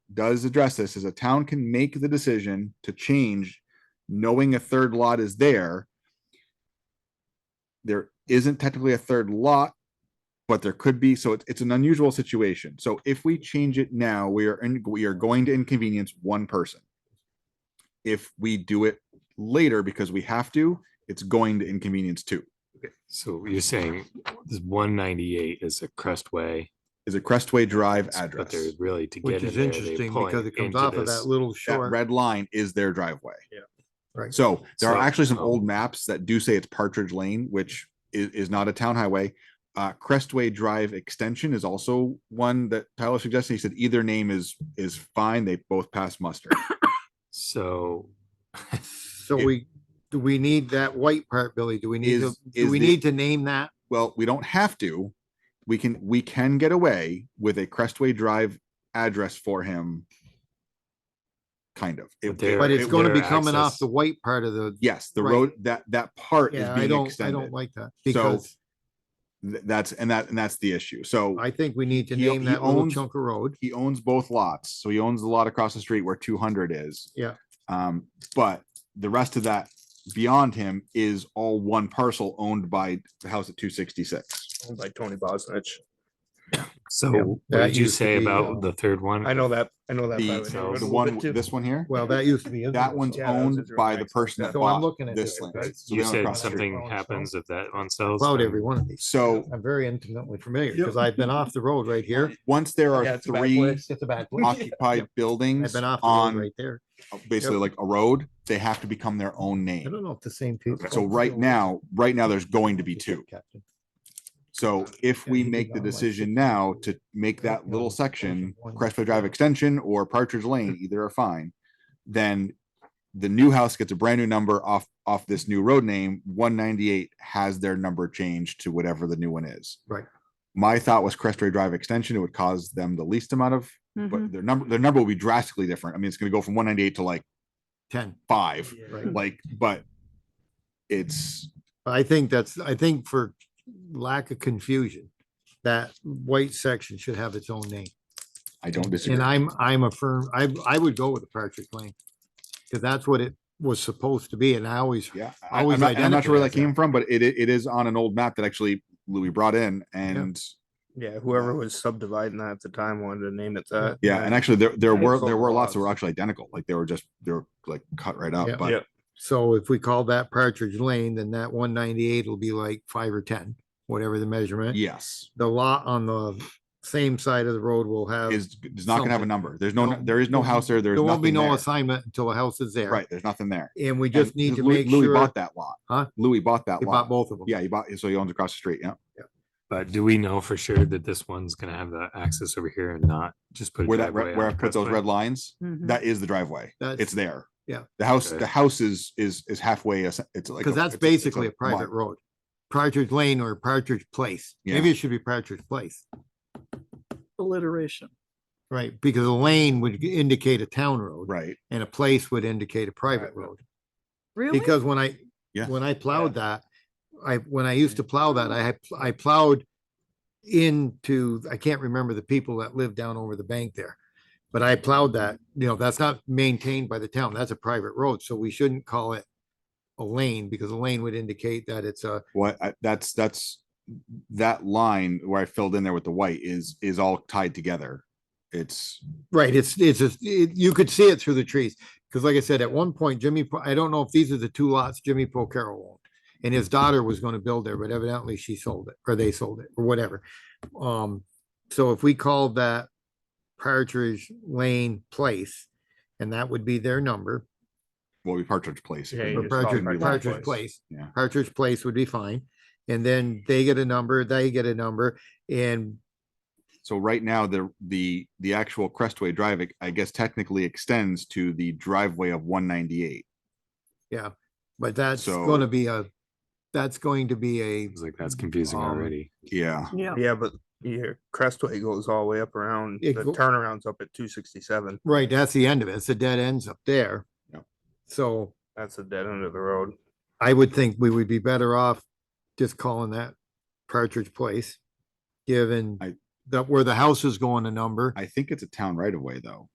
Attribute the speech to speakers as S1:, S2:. S1: does address this, is a town can make the decision to change, knowing a third lot is there. There isn't technically a third lot, but there could be, so it's, it's an unusual situation. So if we change it now, we are, in we are going to inconvenience one person. If we do it later because we have to, it's going to inconvenience two.
S2: So you're saying this one ninety-eight is a Crestway.
S1: Is a Crestway Drive
S2: But
S1: address.
S2: they're really to get
S3: Which
S2: in
S3: is
S2: there, they
S3: interesting
S2: point
S3: because it comes
S2: into
S3: off of
S2: this.
S3: that little
S1: that
S3: short.
S1: red line is their driveway.
S3: Yeah. Right.
S1: So there are
S2: So,
S1: actually some
S2: um,
S1: old maps that do say it's Partridge Lane, which is, is not a town highway. Uh, Crestway Drive Extension is also one that Tyler suggested. He said either name is, is fine. They both pass muster.
S2: So.
S3: So we, do we need that white part, Billy? Do we need to,
S1: Is-
S3: do
S1: is
S3: we
S1: the-
S3: need to name that?
S1: Well, we don't have to. We can, we can get away with a Crestway Drive address for him. Kind of. It-
S2: But they're-
S3: But it's
S2: it
S3: gonna
S2: would
S3: be coming
S2: access-
S3: off the white part of the,
S1: Yes, the
S3: Right.
S1: road, that, that part is
S3: yeah, I
S1: being
S3: don't, I don't
S1: extended.
S3: like that
S1: So-
S3: because
S1: Th- That's, and that, and that's the issue. So.
S3: I think we need to
S1: He-
S3: name
S1: he
S3: that little
S1: owns-
S3: chunk of road.
S1: he owns both lots, so he owns the lot across the street where two hundred is.
S3: Yeah.
S1: Um, but the rest of that beyond him is all one parcel owned by the house at two sixty-six.
S4: owned by Tony Bosnich.
S2: So what
S3: that
S2: did you
S3: used to
S2: say
S3: be, uh,
S2: about the third one?
S4: I know that, I know that. by
S1: The,
S4: name.
S2: so
S4: It was
S1: the
S4: a
S1: one,
S4: little bit
S1: this one here,
S3: Well, that used to be.
S1: that one's
S4: yeah, that was
S1: owned
S4: his
S1: by the
S4: next-
S1: person that
S3: So
S1: bought
S3: I'm looking at
S1: this
S3: it,
S1: land.
S3: right?
S1: So
S2: You
S1: they own
S2: said
S1: across the street.
S2: something
S3: phone, so-
S2: happens if that one sells.
S3: About
S2: then-
S3: every one of these.
S1: So
S3: I'm very intimately familiar because I've been off the road right here.
S1: once there
S4: Yeah,
S1: are
S4: it's a bad
S1: three
S4: place.
S3: It's a back.
S1: occupied
S3: I've
S1: buildings
S3: been off the road
S1: on
S3: right there.
S1: basically like a road, they have to become their own
S3: I
S1: name.
S3: don't know if the same people.
S1: So right now, right now, there's going to be two.
S3: Captain.
S1: So if
S3: Yeah,
S1: we
S3: you could
S1: make
S3: go
S1: the
S3: on, like,
S1: decision
S3: six
S1: now
S3: years.
S1: to make
S3: Correct,
S1: that
S3: no,
S1: little
S3: it's actually
S1: section,
S3: one.
S1: Crestwood Drive Extension or Partridge Lane, either are fine. Then the new house gets a brand new number off, off this new road name, one ninety-eight has their number changed to whatever the new one is.
S3: Right.
S1: My thought was Crestwood Drive Extension, it would cause them the least amount of,
S5: Mhm.
S1: but their number, their number will be drastically different. I mean, it's gonna go from one ninety-eight to like
S3: Ten,
S1: five,
S3: right.
S1: like, but it's,
S3: I think that's, I think for lack of confusion, that white section should have its own name.
S1: I don't disagree.
S3: And I'm, I'm a firm, I, I would go with the Partridge Lane. Cause that's what it was supposed to be and I always,
S1: Yeah,
S3: I
S1: I, am
S3: always
S1: not, I'm not sure where that
S3: identify as that.
S1: came from, but it, it is on an old map that actually Louis brought in and
S4: Yeah, whoever was subdividing that at the time wanted to name it that.
S1: yeah, and actually there, there
S4: Yeah,
S1: were,
S4: it's all
S1: there were lots that
S4: lots.
S1: were actually identical, like they were just, they were like cut right
S3: Yeah.
S1: up,
S4: Yeah.
S1: but
S3: so if we call that Partridge Lane, then that one ninety-eight will be like five or ten, whatever the measurement.
S1: yes.
S3: The lot on the same side of the road will have,
S1: Is, is not gonna have a
S3: something.
S1: number. There's no,
S3: No,
S1: there is no
S3: there-
S1: house there, there's
S3: there won't be
S1: nothing
S3: no
S1: there.
S3: assignment until the house is there.
S1: Right, there's nothing there.
S3: And we just
S1: And
S3: need to
S1: Louis-
S3: make
S1: Louis
S3: sure,
S1: Bought that lot.
S3: Huh?
S1: Louis bought that
S3: he bought
S1: lot.
S3: both of them.
S1: Yeah, he bought, so he owns across the street, yeah.
S2: But do we know for sure that this one's gonna have the access over here and not just put? a
S1: Where that,
S2: driveway
S1: red- where I
S2: on
S1: put those
S2: Crestway?
S1: red lines,
S5: Mhm.
S1: that is the driveway. It's
S3: Mm-hmm. That's,
S1: there.
S3: yeah.
S1: The house,
S2: Okay.
S1: the house is, is, is halfway, it's it's like.
S3: because
S1: a-
S3: that's
S1: it's a- it's
S3: basically a
S1: lot.
S3: private road. Partridge Lane or Partridge Place. Maybe it should be Partridge Place.
S5: Alliteration.
S3: Right, because a lane would indicate a town road
S1: Right,
S3: and a place would indicate a private
S4: Private.
S3: road.
S5: Really?
S3: Because when I,
S1: Yeah. Mm.
S3: when I plowed that, I, when I used to plow that, I had, I plowed into, I can't remember the people that lived down over the bank there. But I plowed that, you know, that's not maintained by the town. That's a private road, so we shouldn't call it a lane because a lane would indicate that it's a,
S1: What, I- that's, that's, that line where I filled in there with the white is, is all tied together. It's,
S3: Right, it's, it's, a- it- you could see it through the trees, because like I said, at one point Jimmy, Po- I don't know if these are the two lots Jimmy Pocaro owned. And his daughter was gonna build there, but evidently she sold it, or they sold it, or whatever. Um, so if we called that Partridge Lane Place, and that would be their number,
S1: well, we Partridge Place. if
S4: Yeah,
S1: we-
S4: you
S3: or
S4: just call it
S3: Partridge,
S4: Partridge
S3: Partridge
S4: Place.
S3: Place.
S1: Yeah.
S3: Partridge Place would be fine, and then they get a number, they get a number, and
S1: So right now, the, the, the actual Crestway Drive, I- I guess technically extends to the driveway of one ninety-eight.
S3: but that's
S1: So-
S3: gonna be a, that's going to be a
S2: Seems like that's confusing
S3: Um,
S2: already.
S1: Yeah,
S5: Yeah.
S4: Yeah, but your Crestway goes all the way up around, the
S3: It go-
S4: turnaround's up at two sixty-seven.
S3: Right, that's the end of it. It's a dead ends up there.
S1: Yep.
S3: So
S4: That's the dead end of the road.
S3: I would think we would be better off just calling that Partridge Place, given
S1: I-
S3: that where the house is going a number.
S1: I think it's a town right away, though.